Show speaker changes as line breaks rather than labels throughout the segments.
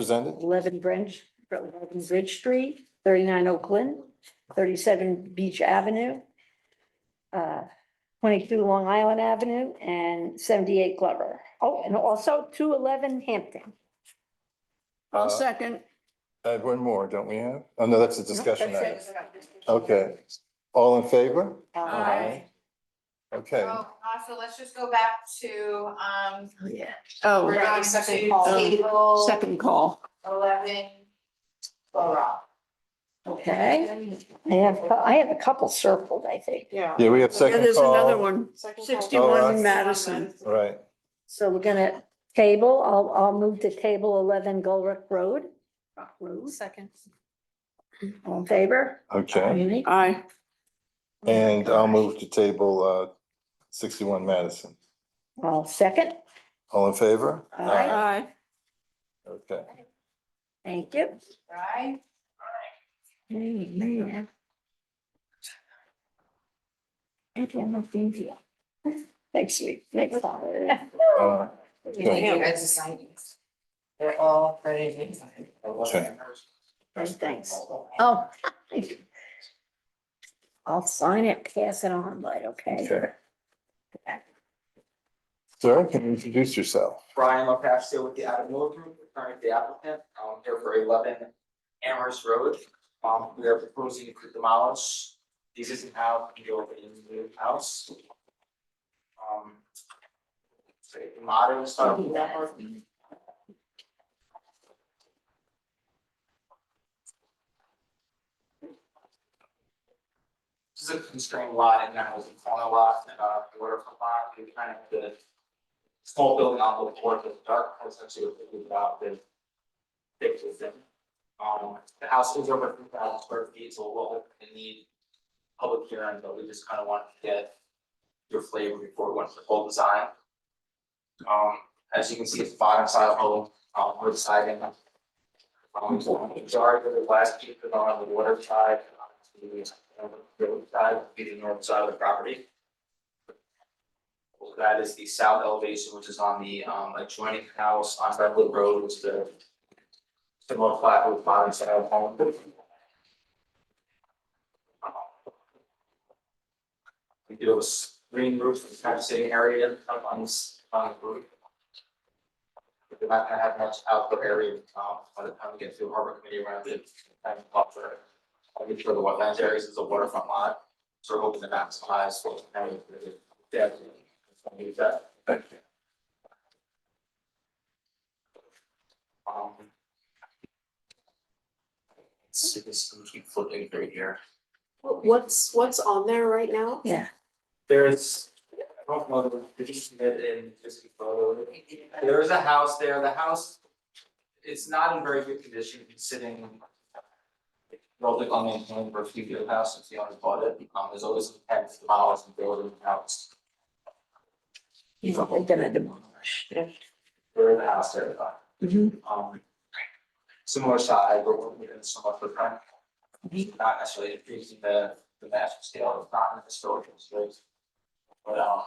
presented.
eleven Bridge, eleven Bridge Street, thirty-nine Oakland, thirty-seven Beach Avenue, uh, twenty-two Long Island Avenue, and seventy-eight Glover. Oh, and also two eleven Hampton.
Uh,
second.
I have one more, don't we have? Oh, no, that's a discussion item. Okay. All in favor?
Aye.
Okay,
Oh, uh, so let's just go back to, um,
Yeah.
we're
Oh,
going to table
second call.
eleven. Laurel.
Okay, I have, I have a couple circled, I think.
Yeah.
yeah, we have
Yeah,
second
there's another
call. Oh,
one.
Second call.
All right.
Sixty-one Madison.
Right,
So we're gonna table, I'll, I'll move to table eleven Gulrick Road.
Second.
All in favor?
okay.
Aye.
Aye,
And I'll move to table uh, sixty-one Madison.
I'll second.
All in favor?
Aye.
aye.
Okay,
Thank you.
Right?
Amen. Thank you. Next week, next time.
uh,
Thank you guys to sign these. They're all ready to be signed.
Okay.
Thanks. Oh. I'll sign it, pass it on, but okay.
okay. Sir, can you introduce yourself?
Brian LaPascio with the Adam Miller Group, current the applicant, I'm here for eleven Amherst Road. Um, we are proposing to demolish the existing house and go into the new house. Um. so Modern style. This is a constrained lot and that was a corner lot and uh, the waterfront lot, we kind of the small building on the board, the dark, essentially what we about the fix with them. Um, the house is over three thousand square feet, so we'll definitely need public hearing, but we just kind of wanted to get your flavor before we went to the full design. Um, as you can see, it's bottom side home, um, wood siding. Um, majority of the last piece is on the water side, on the uh, road side, would be the north side of the property. Well, That is the south elevation, which is on the um adjoining house on Redwood Road, which is the similar flat with bottom side of home. We do have a screen roof, it's kind of sitting area up on this, on the roof. We're not gonna have much outdoor area, um, by the time we get through harbor committee around it, and buffer. I'll make sure the wetlands areas is a waterfront lot, so we're hoping to maximize what area the depth. I'll leave that.
Thank you.
Um. Let's see if this can keep flipping through here.
What's, what's on there right now?
Yeah,
There's, I don't know, did you see that in this photo? There is a house there, the house, it's not in very good condition, it's sitting. Probably unmaintained for a few years now since the owner bought it, um, there's always tens of miles of building house.
you're gonna demolish.
There is a house there, but,
Mhm.
um. Similar size, but we're moving so much of front. Not necessarily increasing the, the massive scale, it's not in the historical space. But, um,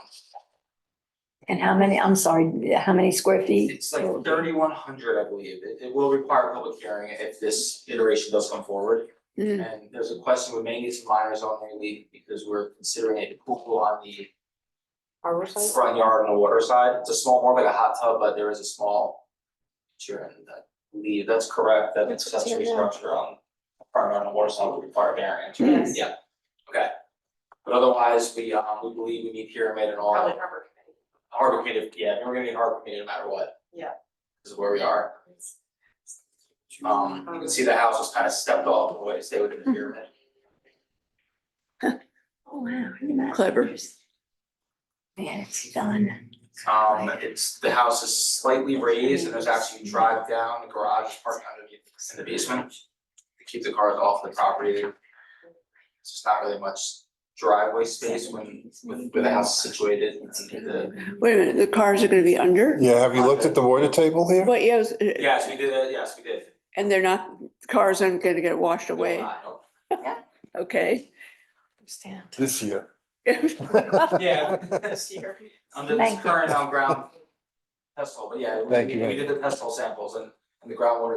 And how many, I'm sorry, how many square feet?
it's like thirty-one hundred, I believe, it, it will require a public hearing if this iteration does come forward.
Mm.
And there's a question, we may need some minors on there, Lee, because we're considering a pool on the
Harbor side?
front yard on the water side, it's a small, more like a hot tub, but there is a small. Sure, and that, Lee, that's correct, that accessory structure on front yard on the water side would require variance, right?
Yes.
yeah, okay. But otherwise, we, um, we believe we need pyramid and all,
Probably harbor committee.
harbor committee, yeah, we're gonna need harbor committee no matter what.
Yeah.
This is where we are, um, you can see the house was kind of stepped off the way, stay within the pyramid.
Oh, wow. look at that.
Clever.
Man, it's done.
Um, it's, the house is slightly raised and there's actually drive down, the garage, parking underneath in the basement. To keep the cars off the property. There's just not really much driveway space when, with, with the house situated and the,
Wait a minute, the cars are gonna be under?
Yeah, have you looked at the water table here?
But yes, uh,
yes, we did, uh, yes, we did.
and they're not, cars aren't gonna get washed away, okay?
This year.
Yeah. Under this
Thank you.
current on ground. Test hole, but yeah, we,
Thank you.
we did the test hole samples and, and the groundwater